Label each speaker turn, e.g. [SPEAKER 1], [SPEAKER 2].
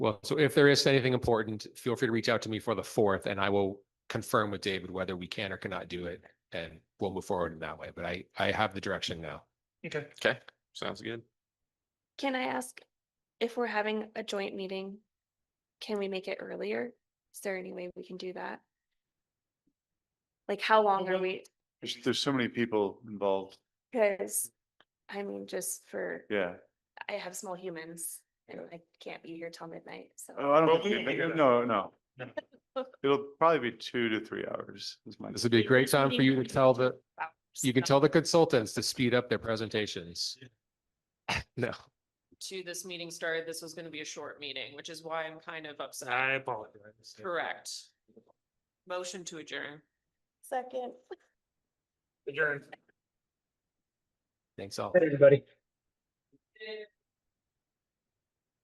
[SPEAKER 1] Well, so if there is anything important, feel free to reach out to me for the fourth and I will confirm with David whether we can or cannot do it. And we'll move forward in that way, but I, I have the direction now.
[SPEAKER 2] Okay.
[SPEAKER 3] Okay, sounds good.
[SPEAKER 4] Can I ask if we're having a joint meeting, can we make it earlier? Is there any way we can do that? Like, how long are
[SPEAKER 2] Well,
[SPEAKER 4] we?
[SPEAKER 5] There's, there's so many people involved.
[SPEAKER 4] Because, I mean, just for,
[SPEAKER 5] Yeah.
[SPEAKER 4] I have small humans and I can't be here till midnight, so.
[SPEAKER 5] Oh, I
[SPEAKER 2] Well,
[SPEAKER 5] don't,
[SPEAKER 2] we
[SPEAKER 5] think
[SPEAKER 2] can do
[SPEAKER 5] we-
[SPEAKER 2] that.
[SPEAKER 5] no, no.
[SPEAKER 2] No.
[SPEAKER 5] It'll probably be two to three hours is my.
[SPEAKER 1] This would be a great time for you to tell the, you can tell the consultants to speed up their presentations. No,
[SPEAKER 6] to this meeting started, this was gonna be a short meeting, which is why I'm kind of upset.
[SPEAKER 2] I apologize.
[SPEAKER 6] Correct. Motion to adjourn.
[SPEAKER 4] Second.
[SPEAKER 2] Adjourned.
[SPEAKER 1] thanks all.
[SPEAKER 7] Everybody.